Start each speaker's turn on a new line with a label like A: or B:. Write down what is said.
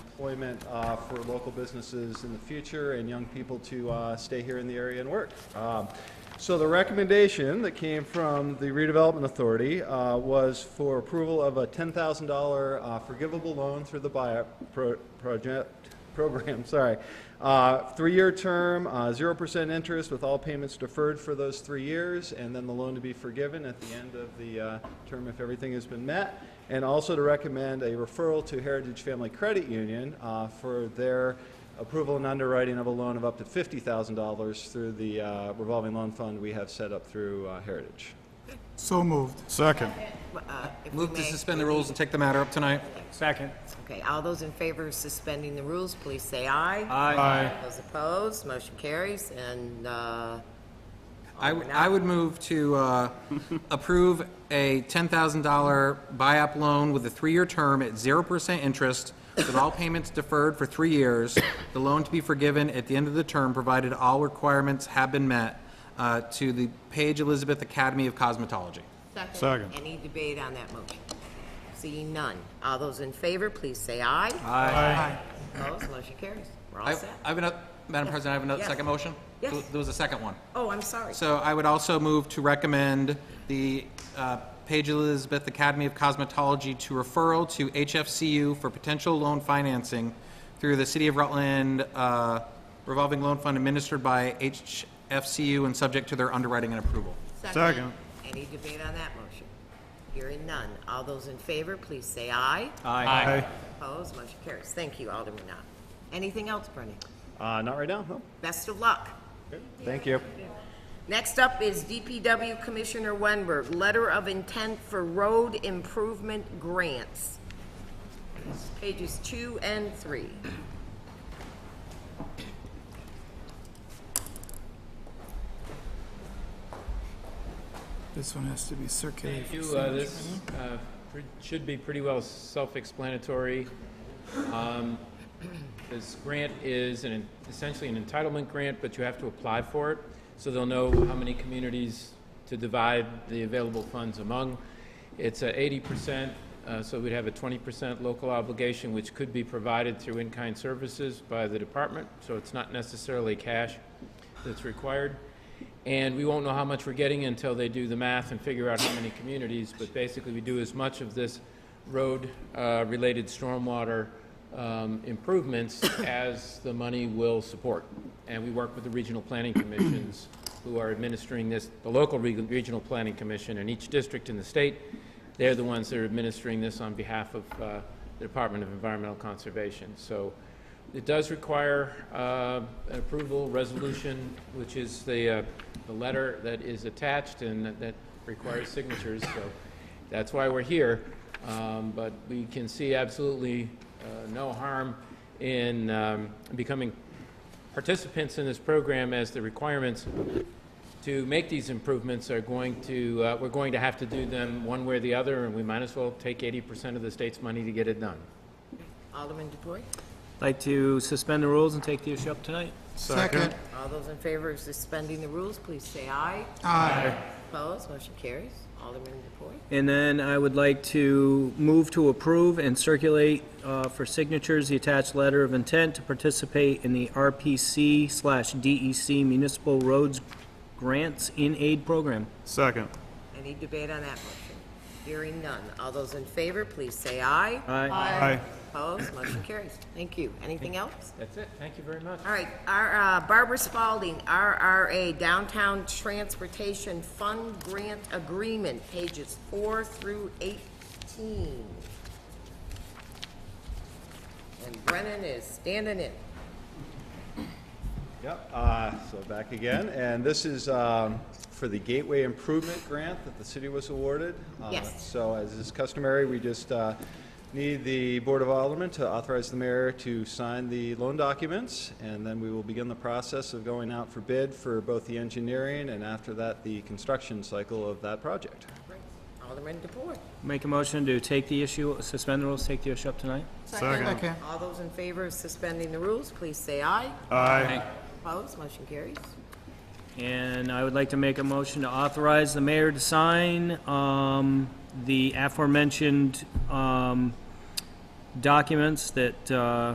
A: employment uh, for local businesses in the future and young people to uh, stay here in the area and work. Um, So the recommendation that came from the redevelopment authority uh, was for approval of a $10,000 uh, forgivable loan through the buyout pro- project, program, sorry. Uh, Three-year term, uh, zero percent interest with all payments deferred for those three years, and then the loan to be forgiven at the end of the uh, term if everything has been met. And also to recommend a referral to Heritage Family Credit Union uh, for their approval and underwriting of a loan of up to fifty thousand dollars through the uh, revolving loan fund we have set up through uh, Heritage.
B: So moved.
C: Second.
D: Uh, if we Oh,
E: Move to
D: may.
E: suspend the rules and take the matter up tonight.
F: Second.
D: Okay, all those in favor of suspending the rules, please say aye.
C: Aye.
D: Those opposed, motion carries, and, uh,
E: I, w- I would move to uh, approve a $10,000 buy-up loan with a three-year term at 0% interest, with all payments deferred for three years, the loan to be forgiven at the end of the term, provided all requirements have been met, uh, to the Page Elizabeth Academy of Cosmetology.
C: Second.
D: any debate on that motion? Seeing none. All those in favor, please say aye.
C: Aye.
D: Opposed, motion carries. We're all
E: I
D: set.
E: I have another, Madam President, I have another
D: Yes.
E: second motion?
D: Yes.
E: There- There was a second one.
D: Oh, I'm sorry.
E: So I would also move to recommend the uh, Page Elizabeth Academy of Cosmetology to referral to HFCU for potential loan financing through the City of Rutland uh, revolving loan fund administered by HFCU and subject to their underwriting and approval.
C: Second.
D: Any debate on that motion? Hearing none. All those in favor, please say aye.
E: Aye.
D: Opposed, motion carries. Thank you, Alderman Knott. Anything else, Brendan?
A: Uh, Not right now, no.
D: Best of luck.
A: Thank you.
D: Next up is DPW Commissioner Wenberg, letter of intent for road improvement grants. Pages two and three.
B: This one has to be circulated.
F: Thank
B: for
F: you. Uh,
B: signature.
F: This uh, pre- should be pretty well self-explanatory. Um, This grant is an essentially an entitlement grant, but you have to apply for it, so they'll know how many communities to divide the available funds among. It's at 80%, uh, so we'd have a 20% local obligation, which could be provided through in-kind services by the department, so it's not necessarily cash that's required. And we won't know how much we're getting until they do the math and figure out how many communities, but basically, we do as much of this road-related stormwater um, improvements as the money will support. And we work with the regional planning commissions who are administering this, the local reg- regional planning commission in each district in the state. They're the ones that are administering this on behalf of uh, the Department of Environmental Conservation. So it does require uh, an approval resolution, which is the, uh, the letter that is attached and that- that requires signatures, so that's why we're here. Um, But we can see absolutely uh, no harm in um, becoming participants in this program as the requirements to make these improvements are going to, uh, we're going to have to do them one way or the other, and we might as well take 80% of the state's money to get it done.
D: Alderman DePoy?
G: Like to suspend the rules and take the issue up tonight?
B: Second.
D: All those in favor of suspending the rules, please say aye.
B: Aye.
D: Opposed, motion carries. Alderman DePoy?
G: And then I would like to move to approve and circulate uh, for signatures the attached letter of intent to participate in the RPC slash DEC Municipal Roads Grants in Aid Program.
C: Second.
D: Any debate on that motion? Hearing none. All those in favor, please say aye.
G: Aye.
C: Aye.
D: Opposed, motion carries. Thank you. Anything else?
F: That's it. Thank you very much.
D: All right, our, uh, Barbara Spalding, RRA Downtown Transportation Fund Grant Agreement, pages four through eighteen. And Brennan is standing in.
A: Yep, uh, so back again, and this is um, for the Gateway Improvement Grant that the city was awarded. Uh,
D: Yes.
A: So as is customary, we just uh, need the Board of Aldermen to authorize the mayor to sign the loan documents, and then we will begin the process of going out for bid for both the engineering and after that, the construction cycle of that project.
D: Alderman DePoy.
G: Make a motion to take the issue, suspend the rules, take the issue up tonight?
C: Second.
B: Second.
D: All those in favor of suspending the rules, please say aye.
C: Aye.
D: Opposed, motion carries.
G: And I would like to make a motion to authorize the mayor to sign um, the aforementioned um, documents that uh,